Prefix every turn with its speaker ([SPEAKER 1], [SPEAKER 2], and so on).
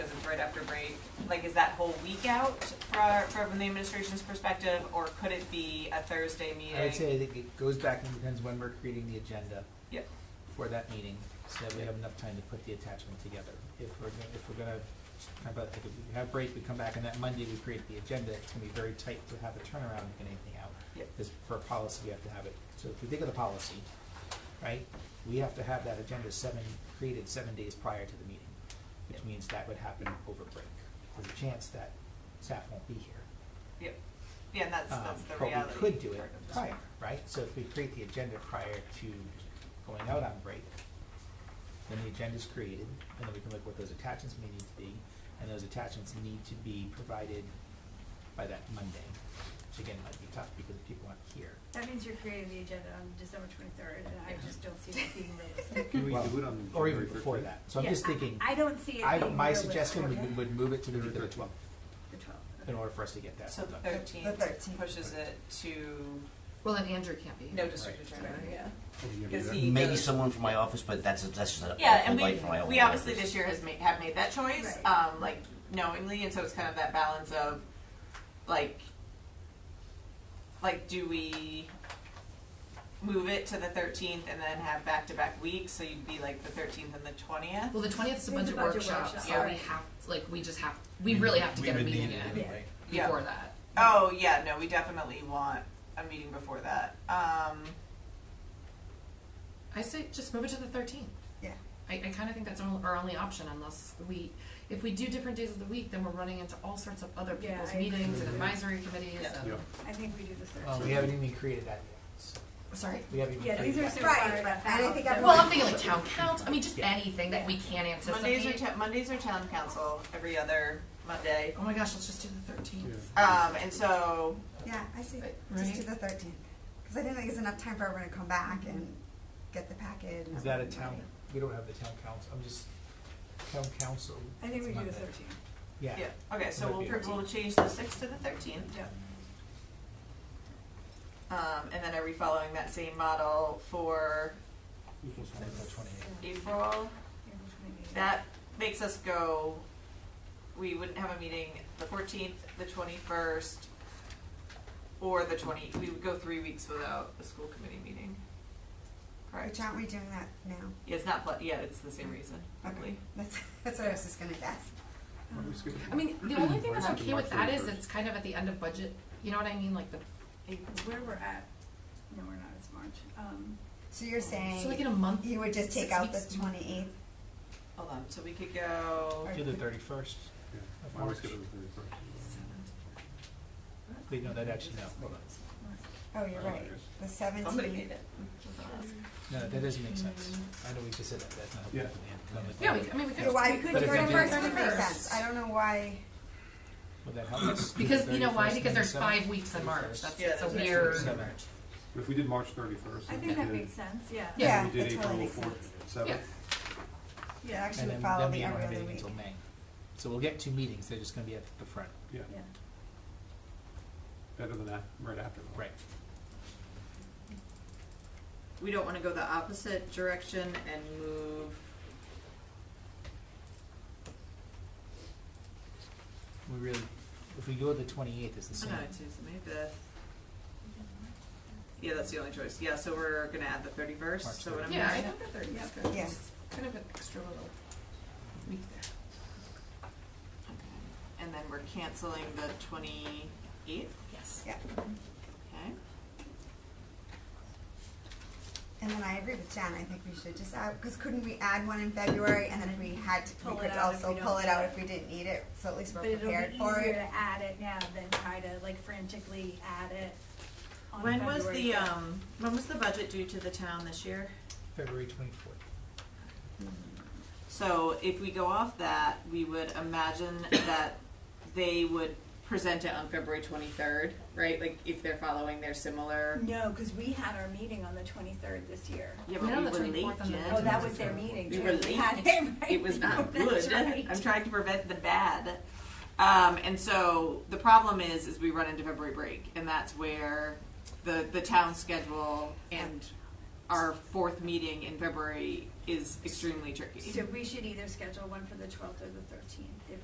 [SPEAKER 1] right after break, like, is that whole week out fra- from the administration's perspective, or could it be a Thursday meeting?
[SPEAKER 2] I would say that it goes back and depends when we're creating the agenda.
[SPEAKER 1] Yep.
[SPEAKER 2] For that meeting, so that we have enough time to put the attachment together. If we're, gonna- if we're gonna, how about, if we have break, we come back, and that Monday we create the agenda, it's gonna be very tight to have a turnaround and get anything out.
[SPEAKER 1] Yep.
[SPEAKER 2] Because for a policy, we have to have it, so if we think of the policy, right, we have to have that agenda seven, created seven days prior to the meeting, which
[SPEAKER 1] Yep.
[SPEAKER 2] means that would happen over break. There's a chance that staff won't be here.
[SPEAKER 1] Yep, yeah, and that's,
[SPEAKER 2] Um,
[SPEAKER 1] that's the
[SPEAKER 2] but we
[SPEAKER 1] reality.
[SPEAKER 2] could do it
[SPEAKER 1] part of this.
[SPEAKER 2] prior, right? So if we create the agenda prior to going out on break, then the agenda's created, and then we can look what those attachments may need to be, and those attachments need to be provided by that Monday, which again might be tough because people aren't here.
[SPEAKER 3] That means you're creating the agenda on December twenty-third, and I just don't see it being realistic.
[SPEAKER 4] Can we
[SPEAKER 2] Well,
[SPEAKER 4] do it on
[SPEAKER 2] Or even
[SPEAKER 4] January
[SPEAKER 2] before
[SPEAKER 4] 15th?
[SPEAKER 2] that. So I'm
[SPEAKER 3] Yeah,
[SPEAKER 2] just thinking,
[SPEAKER 3] I I don't see it
[SPEAKER 2] I,
[SPEAKER 3] being
[SPEAKER 2] my
[SPEAKER 3] realistic.
[SPEAKER 2] suggestion would, would move it to the week of the
[SPEAKER 4] January
[SPEAKER 2] twelfth
[SPEAKER 3] The
[SPEAKER 2] in
[SPEAKER 3] 12th.
[SPEAKER 2] order for us to get that
[SPEAKER 1] So
[SPEAKER 2] done.
[SPEAKER 1] the
[SPEAKER 5] The
[SPEAKER 1] thirteenth
[SPEAKER 5] 13th.
[SPEAKER 1] pushes it to
[SPEAKER 5] Well, and Andrew can't be.
[SPEAKER 1] no
[SPEAKER 5] here.
[SPEAKER 1] district
[SPEAKER 2] Right.
[SPEAKER 1] attorney, yeah.
[SPEAKER 4] Oh, yeah,
[SPEAKER 1] Is
[SPEAKER 4] yeah.
[SPEAKER 1] he-
[SPEAKER 6] Maybe
[SPEAKER 1] goes-
[SPEAKER 6] someone from my office, but that's that's just a
[SPEAKER 1] Yeah, and
[SPEAKER 6] light from my
[SPEAKER 1] we,
[SPEAKER 6] own
[SPEAKER 1] we obviously
[SPEAKER 6] office.
[SPEAKER 1] this year has made, have made that choice,
[SPEAKER 3] Right.
[SPEAKER 1] um, like knowingly, and so it's kind of that balance of, like, like, do we move it to the thirteenth and then have back-to-back weeks, so you'd be like the thirteenth and the twentieth?
[SPEAKER 5] Well, the twentieth is a
[SPEAKER 3] There's
[SPEAKER 5] budget workshop,
[SPEAKER 3] workshop,
[SPEAKER 5] so we
[SPEAKER 3] right.
[SPEAKER 5] have, like, we just have, we really have to get a meeting in
[SPEAKER 3] anyway.
[SPEAKER 1] Yeah.
[SPEAKER 5] before that.
[SPEAKER 1] Oh, yeah, no, we definitely want a meeting before that, um,
[SPEAKER 5] I say, just move it to the thirteenth.
[SPEAKER 3] Yeah.
[SPEAKER 5] I, I kinda think that's our, our only option unless we, if we do different days of the week, then we're running into all sorts of other
[SPEAKER 3] Yeah,
[SPEAKER 5] people's
[SPEAKER 3] I agree.
[SPEAKER 5] meetings and advisory committees
[SPEAKER 1] Yeah.
[SPEAKER 5] and,
[SPEAKER 4] Yeah.
[SPEAKER 3] I think we do the third.
[SPEAKER 2] Well, we haven't even created that yet. So
[SPEAKER 5] sorry?
[SPEAKER 2] We haven't even
[SPEAKER 3] Yeah, these
[SPEAKER 2] created
[SPEAKER 3] are
[SPEAKER 2] that.
[SPEAKER 3] so
[SPEAKER 2] yet.
[SPEAKER 3] far.
[SPEAKER 7] Right, and I think I'm-
[SPEAKER 5] Well, I'm thinking like town council, I mean, just anything that we can
[SPEAKER 1] Mondays are,
[SPEAKER 5] anticipate.
[SPEAKER 1] ta- Mondays are town council, every other Monday,
[SPEAKER 5] Oh my gosh, let's just do the thirteenth.
[SPEAKER 4] Yeah.
[SPEAKER 1] um, and so,
[SPEAKER 7] Yeah, I see.
[SPEAKER 5] Right.
[SPEAKER 7] Just do the thirteenth, because I didn't think there's enough time for everyone to come back and get the packet. and
[SPEAKER 2] Is that a
[SPEAKER 7] everything
[SPEAKER 2] town,
[SPEAKER 7] ready.
[SPEAKER 2] we don't have the town council, I'm just, town council.
[SPEAKER 3] I think we
[SPEAKER 2] it's
[SPEAKER 3] do
[SPEAKER 2] not
[SPEAKER 3] the
[SPEAKER 2] that-
[SPEAKER 3] thirteenth.
[SPEAKER 2] Yeah.
[SPEAKER 1] yeah, okay, so
[SPEAKER 2] Might
[SPEAKER 1] we'll,
[SPEAKER 2] be
[SPEAKER 1] pr- we'll
[SPEAKER 2] 13th.
[SPEAKER 1] change the sixth to the thirteenth.
[SPEAKER 3] Yeah.
[SPEAKER 1] Um, and then are we following that same model for
[SPEAKER 4] Equals
[SPEAKER 2] And then the 28th.
[SPEAKER 1] April?
[SPEAKER 3] April 28th.
[SPEAKER 1] That makes us go, we wouldn't have a meeting the fourteenth, the twenty-first, or the twenty, we would go three weeks without a school committee meeting.
[SPEAKER 7] Which
[SPEAKER 1] Correct?
[SPEAKER 7] aren't we doing that now?
[SPEAKER 1] Yeah, it's not, pla- yeah, it's the same reason,
[SPEAKER 7] Okay,
[SPEAKER 1] probably.
[SPEAKER 7] that's, that's what I was just gonna guess.
[SPEAKER 3] Um,
[SPEAKER 4] Why don't we skip it?
[SPEAKER 5] I mean, the only thing
[SPEAKER 4] Why
[SPEAKER 5] that's
[SPEAKER 4] skip
[SPEAKER 5] okay
[SPEAKER 4] March
[SPEAKER 5] with that is
[SPEAKER 4] 31st?
[SPEAKER 5] it's kind of at the end of budget, you know what I mean, like the,
[SPEAKER 3] Where we're at, no, we're not, it's March. Um,
[SPEAKER 7] So you're
[SPEAKER 5] so like in
[SPEAKER 7] saying
[SPEAKER 5] a month.
[SPEAKER 7] you would just take
[SPEAKER 5] six
[SPEAKER 7] out the
[SPEAKER 5] weeks.
[SPEAKER 7] twenty-eighth?
[SPEAKER 1] Hold on, so we could go,
[SPEAKER 2] Do the thirty-first.
[SPEAKER 4] Yeah.
[SPEAKER 2] Of
[SPEAKER 4] Why don't we
[SPEAKER 2] March.
[SPEAKER 4] skip it to the 31st?
[SPEAKER 2] Wait, no, that actually, no, hold on.
[SPEAKER 7] Oh, you're right, the seventeenth.
[SPEAKER 1] somebody made it.
[SPEAKER 2] No, that doesn't make sense. I know we just said that, but that's not
[SPEAKER 4] Yeah.
[SPEAKER 2] helpful.
[SPEAKER 5] Mm-hmm. Yeah, we, I mean, we could.
[SPEAKER 7] So why,
[SPEAKER 5] we could
[SPEAKER 2] But
[SPEAKER 7] the
[SPEAKER 5] do
[SPEAKER 2] if
[SPEAKER 5] it on
[SPEAKER 2] you do-
[SPEAKER 5] the
[SPEAKER 7] thirty-first would make
[SPEAKER 5] 31st.
[SPEAKER 7] sense, I don't know why,
[SPEAKER 2] Would that help us?
[SPEAKER 5] Because, you know why?
[SPEAKER 2] 31st,
[SPEAKER 5] Because there's
[SPEAKER 2] then the
[SPEAKER 5] five weeks in March.
[SPEAKER 2] 31st.
[SPEAKER 5] That's,
[SPEAKER 1] Yeah,
[SPEAKER 5] it's a
[SPEAKER 1] that's right.
[SPEAKER 5] weird.
[SPEAKER 2] Seven.
[SPEAKER 4] If we did March thirty-first.
[SPEAKER 3] I think that makes sense, yeah.
[SPEAKER 5] Yeah.
[SPEAKER 7] yeah,
[SPEAKER 4] We did
[SPEAKER 7] that totally
[SPEAKER 4] April
[SPEAKER 7] makes sense.
[SPEAKER 4] fourth, seventh.
[SPEAKER 7] It actually
[SPEAKER 2] And
[SPEAKER 7] would
[SPEAKER 2] then,
[SPEAKER 7] follow
[SPEAKER 2] then
[SPEAKER 7] the
[SPEAKER 2] we
[SPEAKER 7] every
[SPEAKER 2] aren't
[SPEAKER 7] other
[SPEAKER 2] meeting
[SPEAKER 7] week.
[SPEAKER 2] until May. So we'll get two meetings, they're just gonna be at the front.
[SPEAKER 4] Yeah,
[SPEAKER 3] Yeah.
[SPEAKER 4] better than that, right after. though.
[SPEAKER 2] Right.
[SPEAKER 1] We don't wanna go the opposite direction and move,
[SPEAKER 2] We really, if we go the twenty-eighth, it's the
[SPEAKER 1] oh
[SPEAKER 2] same.
[SPEAKER 1] no, it's May fifth. Yeah, that's the only choice, yeah, so we're gonna add the
[SPEAKER 2] March
[SPEAKER 1] thirty-first, so what I'm
[SPEAKER 5] Yeah, I
[SPEAKER 1] hearing-
[SPEAKER 5] think that thirty is
[SPEAKER 3] Yeah.
[SPEAKER 5] good.
[SPEAKER 7] Yeah.
[SPEAKER 5] Just Kind of an extra little week there.
[SPEAKER 1] And then we're canceling the twenty-eighth,
[SPEAKER 5] Yes.
[SPEAKER 7] Yeah,
[SPEAKER 1] okay?
[SPEAKER 7] and then I agree with Jen, I think we should just add, because couldn't we add one in February, and then if we had to, we
[SPEAKER 3] Pull it
[SPEAKER 7] could
[SPEAKER 3] out if
[SPEAKER 7] also
[SPEAKER 3] we
[SPEAKER 7] pull
[SPEAKER 3] don't
[SPEAKER 7] it out
[SPEAKER 3] need it.
[SPEAKER 7] if we didn't need it, so at least
[SPEAKER 3] But
[SPEAKER 7] we're
[SPEAKER 3] it'll be
[SPEAKER 7] prepared for it.
[SPEAKER 3] easier to add it now than try to like frantically add it on
[SPEAKER 1] When was
[SPEAKER 3] February
[SPEAKER 1] the,
[SPEAKER 3] fifth.
[SPEAKER 1] um, when was the budget due to the town this year?
[SPEAKER 2] February twenty-fourth.
[SPEAKER 1] So if we go off that, we would imagine that they would present it on February twenty-third, right? Like, if they're following their similar,
[SPEAKER 3] No, because we had our meeting on the twenty-third this year.
[SPEAKER 1] yeah,
[SPEAKER 5] No,
[SPEAKER 1] but
[SPEAKER 5] the
[SPEAKER 1] we were late,
[SPEAKER 5] 24th and the
[SPEAKER 1] Jen.
[SPEAKER 3] Oh, that was their meeting.
[SPEAKER 1] We
[SPEAKER 3] too.
[SPEAKER 1] were late.
[SPEAKER 3] had it right.
[SPEAKER 1] It was not
[SPEAKER 3] That's
[SPEAKER 1] good.
[SPEAKER 3] right.
[SPEAKER 1] I'm trying to prevent the bad. Um, and so the problem is, is we run into February break, and that's where the the town schedule and our fourth meeting in February is extremely tricky.
[SPEAKER 3] So we should either schedule one for the twelfth or the thirteenth, if